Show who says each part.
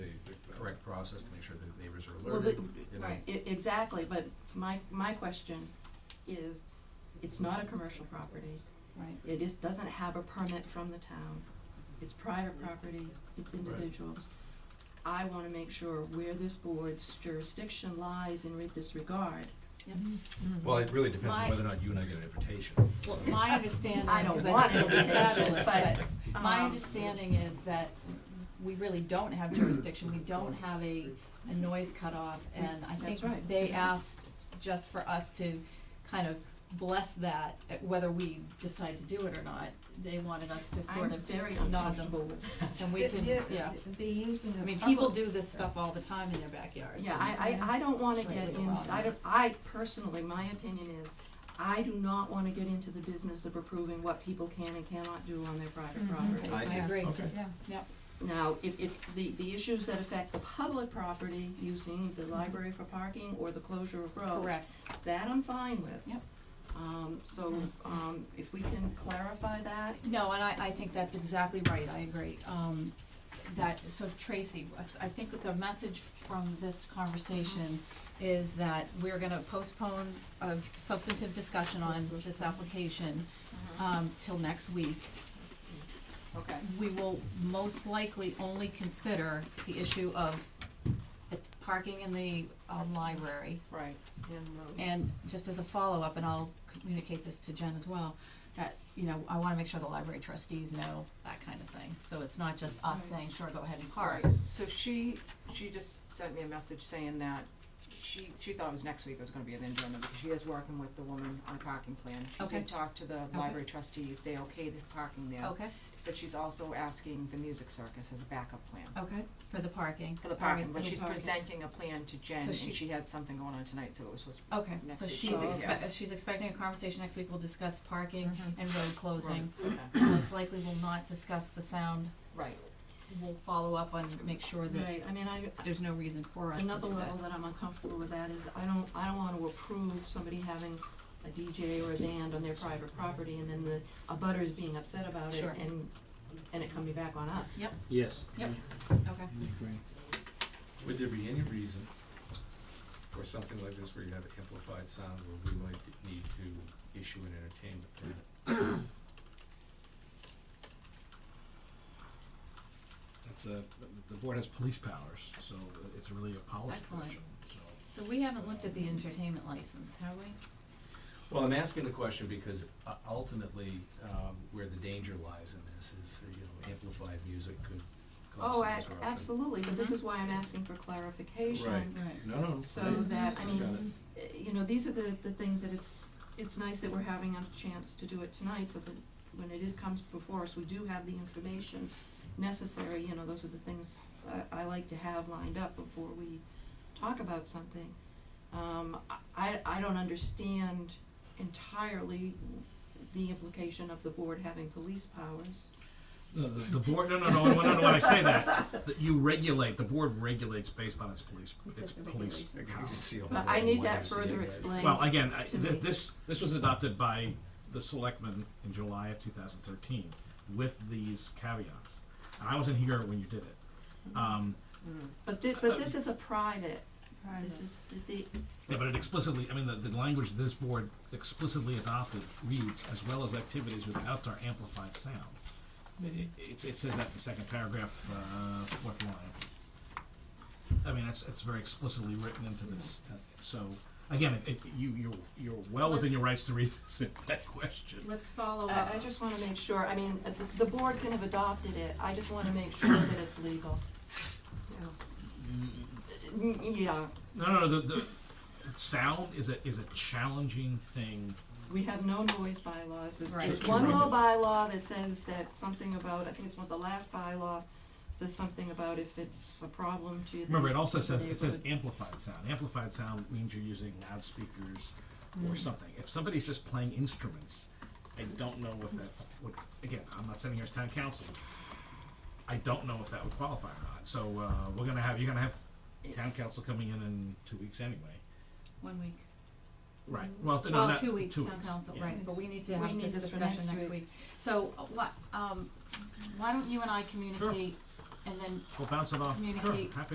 Speaker 1: process to make sure that the neighbors are
Speaker 2: Well, the-
Speaker 1: alerted, you know?
Speaker 2: Right, e- exactly, but my, my question is, it's not a commercial property.
Speaker 3: Right.
Speaker 2: It is, doesn't have a permit from the town. It's private property, it's individuals. I wanna make sure where this board's jurisdiction lies in re- this regard. Mm-hmm.
Speaker 1: Well, it really depends on
Speaker 3: My-
Speaker 1: whether or not you and I get an invitation, so.
Speaker 3: Well, my understanding,
Speaker 2: I don't
Speaker 3: because I
Speaker 2: want
Speaker 3: think it'll be
Speaker 2: invitation,
Speaker 3: fabulous,
Speaker 2: but,
Speaker 3: but my
Speaker 2: um,
Speaker 3: understanding is that we really don't have jurisdiction, we don't have a, a noise cutoff, and I
Speaker 2: That's
Speaker 3: think
Speaker 2: right.
Speaker 3: they asked just for us to kind of bless that, uh, whether we decide to do it or not, they wanted us to sort
Speaker 2: I'm
Speaker 3: of
Speaker 2: very
Speaker 3: nod them,
Speaker 2: uncomfortable with that.
Speaker 3: and we can, yeah,
Speaker 4: The using
Speaker 3: I
Speaker 4: of
Speaker 3: mean,
Speaker 4: public-
Speaker 3: people do this stuff all the time in their backyards.
Speaker 2: Yeah,
Speaker 3: and-
Speaker 2: I, I, I don't wanna
Speaker 3: Right,
Speaker 2: get
Speaker 3: with the
Speaker 2: in,
Speaker 3: lot.
Speaker 2: I don't, I personally, my opinion is, I do not wanna get into the business of approving what people can and cannot do on their private
Speaker 3: Mm-hmm.
Speaker 2: property.
Speaker 3: I agree,
Speaker 1: Okay.
Speaker 4: Yeah.
Speaker 3: yep,
Speaker 2: Now, if, if the, the issues that affect the public property using the library for parking or the closure of roads.
Speaker 3: correct,
Speaker 2: That I'm fine with.
Speaker 3: Yep.
Speaker 2: Um, so, um, if we can clarify that,
Speaker 3: No, and I, I think that's exactly right, I agree. Um, that, so Tracy, I th- I think that the message from this conversation is that we're gonna postpone a substantive discussion on this application, um, till next week.
Speaker 2: okay,
Speaker 3: We will most likely only consider the issue of the t- parking in the, um, library.
Speaker 2: right, and, um,
Speaker 3: And just as a follow-up, and I'll communicate this to Jen as well, that, you know, I wanna make sure the library trustees know that kind of thing, so it's not just us saying, sure, go ahead and park.
Speaker 5: Right, so she, she just sent me a message saying that she, she thought it was next week it was gonna be an agenda, because she is working with the woman on a parking plan. She
Speaker 3: Okay. Oh.
Speaker 5: did talk to the library trustees, they okayed the parking there.
Speaker 3: Okay,
Speaker 5: But she's also asking the music circus as a backup plan
Speaker 3: okay, for the parking.
Speaker 5: for the parking,
Speaker 3: Alright,
Speaker 5: but
Speaker 3: so
Speaker 5: she's
Speaker 3: Oh, parking.
Speaker 5: presenting a plan to Jen,
Speaker 3: So
Speaker 5: and
Speaker 3: she-
Speaker 5: she had something going on tonight, so it was supposed to
Speaker 3: Okay,
Speaker 5: next
Speaker 3: so
Speaker 5: week.
Speaker 3: she's
Speaker 5: Oh,
Speaker 3: expect, she's expecting a conversation next week, we'll discuss parking
Speaker 5: Mm-hmm.
Speaker 3: and road closing.
Speaker 5: Okay,
Speaker 3: Most likely we will not discuss the sound,
Speaker 5: right,
Speaker 3: we'll follow up on, make sure that
Speaker 2: right, I mean, I,
Speaker 3: there's no reason for us to do
Speaker 2: another
Speaker 3: that.
Speaker 2: level that I'm uncomfortable with that is, I don't, I don't wanna approve somebody having a DJ or a band on their private property and then the, a butter's being upset about it
Speaker 3: Sure.
Speaker 2: and, and it coming back on us.
Speaker 3: Yep.
Speaker 6: Yes.
Speaker 3: Yep. Okay,
Speaker 1: Would there be any reason for something like this where you have amplified sound where we might need to issue an entertainment permit?
Speaker 7: That's a, the board has police powers, so it's really a policy
Speaker 3: Excellent.
Speaker 7: question, so.
Speaker 3: so we haven't looked at the entertainment license, have we?
Speaker 1: Well, I'm asking the question because uh, ultimately, um, where the danger lies in this is, uh, you know, amplified music could cause
Speaker 2: Oh,
Speaker 1: some
Speaker 2: a-
Speaker 1: disruption.
Speaker 2: absolutely, but this is why I'm asking for clarification.
Speaker 1: Right.
Speaker 3: Right.
Speaker 1: No, no.
Speaker 2: So
Speaker 1: I-
Speaker 2: that, I
Speaker 1: I
Speaker 2: mean,
Speaker 1: got it.
Speaker 2: uh, you know, these are the, the things that it's, it's nice that we're having a chance to do it tonight, so that when it is comes before us, we do have the information necessary, you know, those are the things I, I like to have lined up before we talk about something. Um, I, I don't understand entirely the implication of the board having police powers.
Speaker 7: The, the, the board, no, no, no, no, no, no, when I say that, that you regulate, the board regulates based on its police,
Speaker 3: Who said
Speaker 7: its
Speaker 3: the
Speaker 7: police
Speaker 1: I can just
Speaker 7: powers.
Speaker 1: see all
Speaker 2: But
Speaker 1: the
Speaker 2: I need
Speaker 1: wonderful
Speaker 2: that
Speaker 1: scene,
Speaker 2: further
Speaker 1: right?
Speaker 2: explained.
Speaker 7: Well, again, I,
Speaker 2: To
Speaker 7: thi-
Speaker 2: me.
Speaker 7: this, this was adopted by the selectmen in July of two thousand thirteen with these caveats. And I wasn't here when you did it. Um,
Speaker 2: But thi- but this is a private,
Speaker 3: Private.
Speaker 2: this is, the,
Speaker 7: Yeah, but it explicitly, I mean, the, the language this board explicitly adopted reads, as well as activities with outdoor amplified sound. It, it, it says that in the second paragraph, uh, fourth line. I mean, it's, it's very explicitly written into this, uh, so, again, it, it- you, you're, you're well within your rights to revisit that question.
Speaker 3: Let's follow
Speaker 5: Uh,
Speaker 3: up.
Speaker 2: I, I just wanna make sure, I mean, uh, the- the board can have adopted it, I just wanna make sure that it's legal. N- mm, Yeah,
Speaker 7: No, no, no, the, the, sound is a, is a challenging thing.
Speaker 2: we have no noise bylaws, there's,
Speaker 3: Right.
Speaker 2: there's one little bylaw that says that something about, I think it's one of the last bylaw, says something about if it's a problem to the
Speaker 7: Remember, it also says, it says
Speaker 2: neighborhood.
Speaker 7: amplified sound. Amplified sound means you're using loudspeakers
Speaker 3: Hmm.
Speaker 7: or something. If somebody's just playing instruments, I don't know if that would, again, I'm not sitting here as town council. I don't know if that would qualify or not. So, uh, we're gonna have, you're gonna have town council coming in in two weeks anyway.
Speaker 3: One week.
Speaker 7: Right, well, no,
Speaker 3: Mm-hmm. Well,
Speaker 7: not,
Speaker 3: two weeks,
Speaker 7: two
Speaker 3: town
Speaker 7: weeks,
Speaker 3: council,
Speaker 7: yeah.
Speaker 3: right, but we need to
Speaker 2: We
Speaker 3: have
Speaker 2: need
Speaker 3: this
Speaker 2: this for
Speaker 3: discussion
Speaker 2: next
Speaker 3: next
Speaker 2: week.
Speaker 3: week. So, uh, what, um, why don't you and I communicate and then
Speaker 7: We'll bounce it off, sure,
Speaker 3: Communicate.
Speaker 7: happy